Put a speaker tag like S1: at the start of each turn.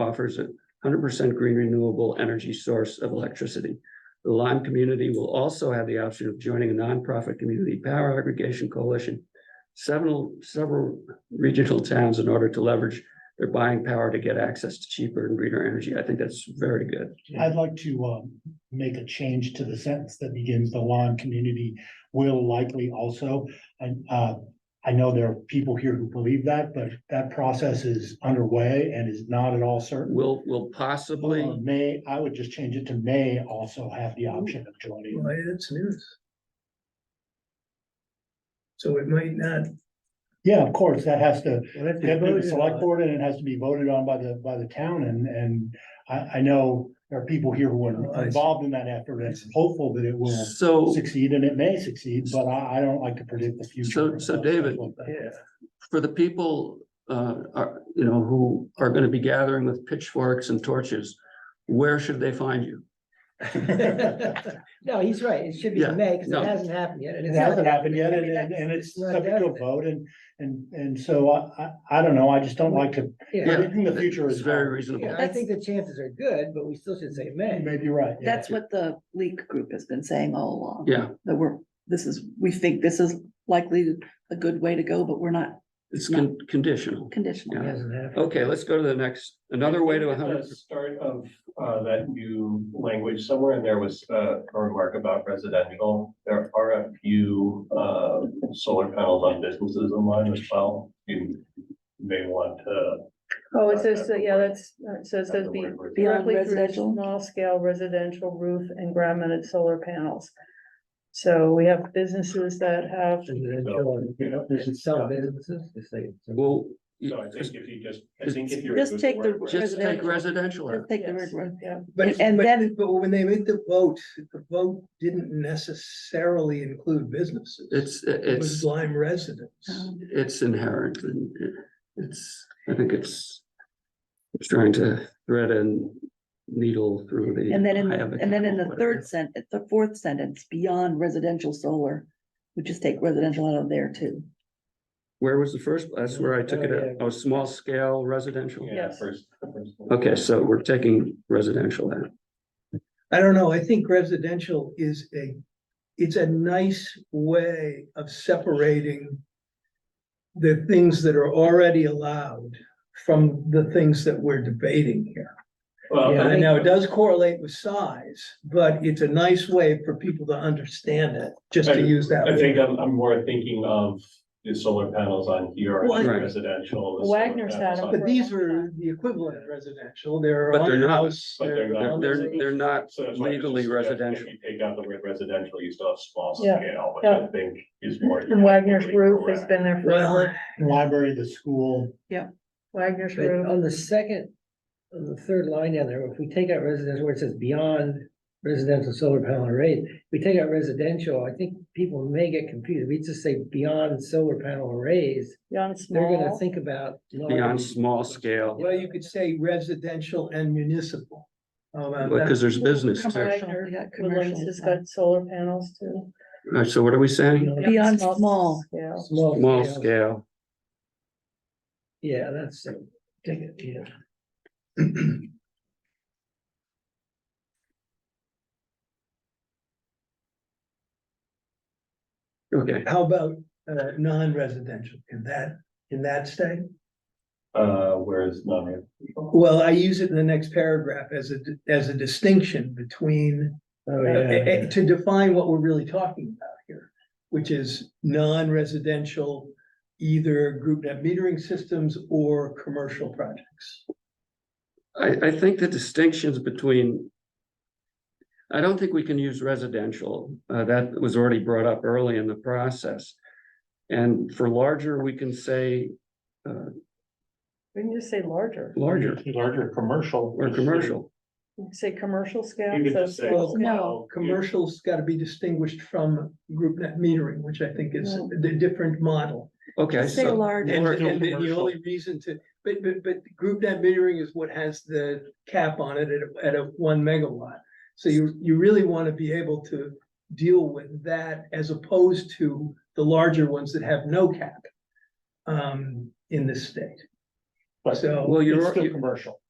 S1: offers a hundred percent green renewable energy source of electricity. The Lime community will also have the option of joining a nonprofit community power aggregation coalition. Several, several regional towns in order to leverage their buying power to get access to cheaper and greener energy. I think that's very good.
S2: I'd like to um make a change to the sentence that begins the lawn community will likely also. And uh, I know there are people here who believe that, but that process is underway and is not at all certain.
S1: Will, will
S2: Uh,
S1: possibly,
S2: May, I would just change it to may also have the option of joining.
S3: Why, that's news. So it might not.
S2: Yeah, of course, that has to,
S3: we'll have to
S2: They have to be
S3: vote it
S2: the select
S3: on.
S2: board and it has to be voted on by the, by the town and, and I, I know there are people here who
S3: Oh, I
S2: are
S3: see.
S2: involved in that effort and hopeful that it will
S1: so
S2: succeed and it may succeed, but I, I don't like to predict the future.
S1: So- so David-
S3: Yeah,
S1: for the people, uh, are, you know, who are gonna be gathering with pitchforks and torches, where should they find you?
S4: No, he's right. It should be
S1: Yeah,
S4: in May because
S1: no.
S4: it hasn't happened yet. and
S2: It
S4: it's not
S2: hasn't
S4: like-
S2: happened yet
S4: I
S2: and,
S4: mean,
S2: and
S4: that's-
S2: and it's
S4: not
S2: subject to a
S4: definite.
S2: vote and, and, and so I, I, I don't know. I just don't like to,
S4: Yeah,
S2: predicting the future
S1: It's
S2: is
S1: very
S2: hard.
S1: reasonable.
S4: yeah, I think the chances are good, but we still should say
S2: You
S4: May.
S2: may be right. yeah.
S5: That's what the leak group has been saying all along,
S1: Yeah,
S5: that we're, this is, we think this is likely a good way to go, but we're not
S1: it's con- conditional.
S5: conditional.
S1: Yeah.
S3: hasn't happened.
S1: Okay, let's go to the next, another way to a
S6: At the
S1: hundred,
S6: Start of uh that new language somewhere in there was uh a remark about residential. There are a few uh solar panels on businesses online as well. You may want to.
S7: Oh, it says, that- yeah, that's, uh, so it
S6: have
S7: says
S6: the
S7: be
S6: word for it.
S5: Beyond
S7: directly through
S5: residential?
S7: small scale residential roof and ground mounted solar panels. So we have businesses that have,
S4: There's some businesses, they say.
S1: well,
S6: So I think if you just, I think if you.
S5: Just
S6: remove
S5: take the
S6: word
S1: just take residential.
S5: residential, just take the word,
S7: Yes.
S5: res-
S7: yeah,
S3: But, it's-
S5: And
S3: but,
S5: then-
S3: but when they made the vote, the vote didn't necessarily include businesses.
S1: It's,
S3: It was
S1: it's,
S3: Lyme residents.
S5: um,
S1: it's inherent and it's, I think it's it's trying to thread and needle through the.
S5: And then in,
S1: eye of a
S5: and then in
S1: camel,
S5: the
S1: whatever.
S5: third sent, at the fourth sentence, beyond residential solar, we just take residential out of there too.
S1: Where was the first? That's where I took it out. Oh, small scale residential?
S6: Yeah,
S7: Yes.
S6: first. first-
S1: Okay, so we're taking residential out.
S3: I don't know, I think residential is a, it's a nice way of separating the things that are already allowed from the things that we're debating here.
S6: Well,
S3: And
S6: I
S3: I
S6: think-
S3: know it does correlate with size, but it's a nice way for people to understand it, just to use that.
S6: I think
S3: word.
S6: I'm I'm more thinking of the solar panels on here
S3: Well, I-
S6: and residential. the solar
S7: Wagner's had
S6: panels
S7: them.
S6: on-
S3: But these are the equivalent of residential, they're
S1: But they're
S3: on
S1: not.
S3: house.
S6: But they're
S1: They're,
S6: not.
S1: they're, they're not
S6: So that's why I was just
S1: legally
S6: suggesting
S1: residential.
S6: If you take out the word residential, you still have small
S7: Yeah,
S6: scale, which
S7: yeah.
S6: I think is more.
S7: and Wagner's roof has
S6: correct.
S7: been there
S3: Well,
S7: forever,
S2: Library, the school,
S7: Wagner's
S4: But
S5: um,
S7: roof.
S4: on the second, on the third line down there, if we take out residential, where it says beyond residential solar panel arrays, if we take out residential, I think people may get confused. We just say beyond solar panel arrays.
S7: Beyond
S4: They're gonna
S7: small,
S4: think about. large-
S1: Beyond small scale,
S3: well, you could say residential and municipal. Um, and
S1: because there's business too.
S5: Commercial, yeah,
S7: Woodlands
S5: commercial.
S7: has got solar panels too.
S1: All right, So what are we saying?
S5: Beyond small.
S7: Yeah,
S1: Small scale.
S4: Yeah, that's, take it, yeah.
S1: Okay,
S3: How about uh non-residential? Can that, can that stay?
S6: Uh, whereas none.
S3: Well, I use it in the next paragraph as a, as a distinction between,
S4: Oh,
S3: uh,
S4: yeah,
S3: eh, eh,
S4: yeah.
S3: to define what we're really talking about here, which is non-residential, either group net metering systems or commercial projects.
S1: I, I think the distinctions between. I don't think we can use residential, uh, that was already brought up early in the process. And for larger, we can say
S7: we can just say larger,
S1: larger
S6: Larger commercial.
S1: or commercial.
S7: we can say commercial
S6: You
S7: scale.
S6: could
S7: so
S6: just say.
S3: Well,
S5: no,
S3: Commercial's got to be distinguished from group net metering, which I think is
S5: Well-
S3: the different model.
S1: Okay,
S5: Say
S1: so,
S5: large.
S3: And,
S1: Or
S3: and the- the
S6: commercial.
S3: only reason to, but, but, but group net metering is what has the cap on it at, a- at a one megawatt. So you, you really want to be able to deal with that as opposed to the larger ones that have no cap. Um, in this state. So,
S1: well, you're,
S6: commercial.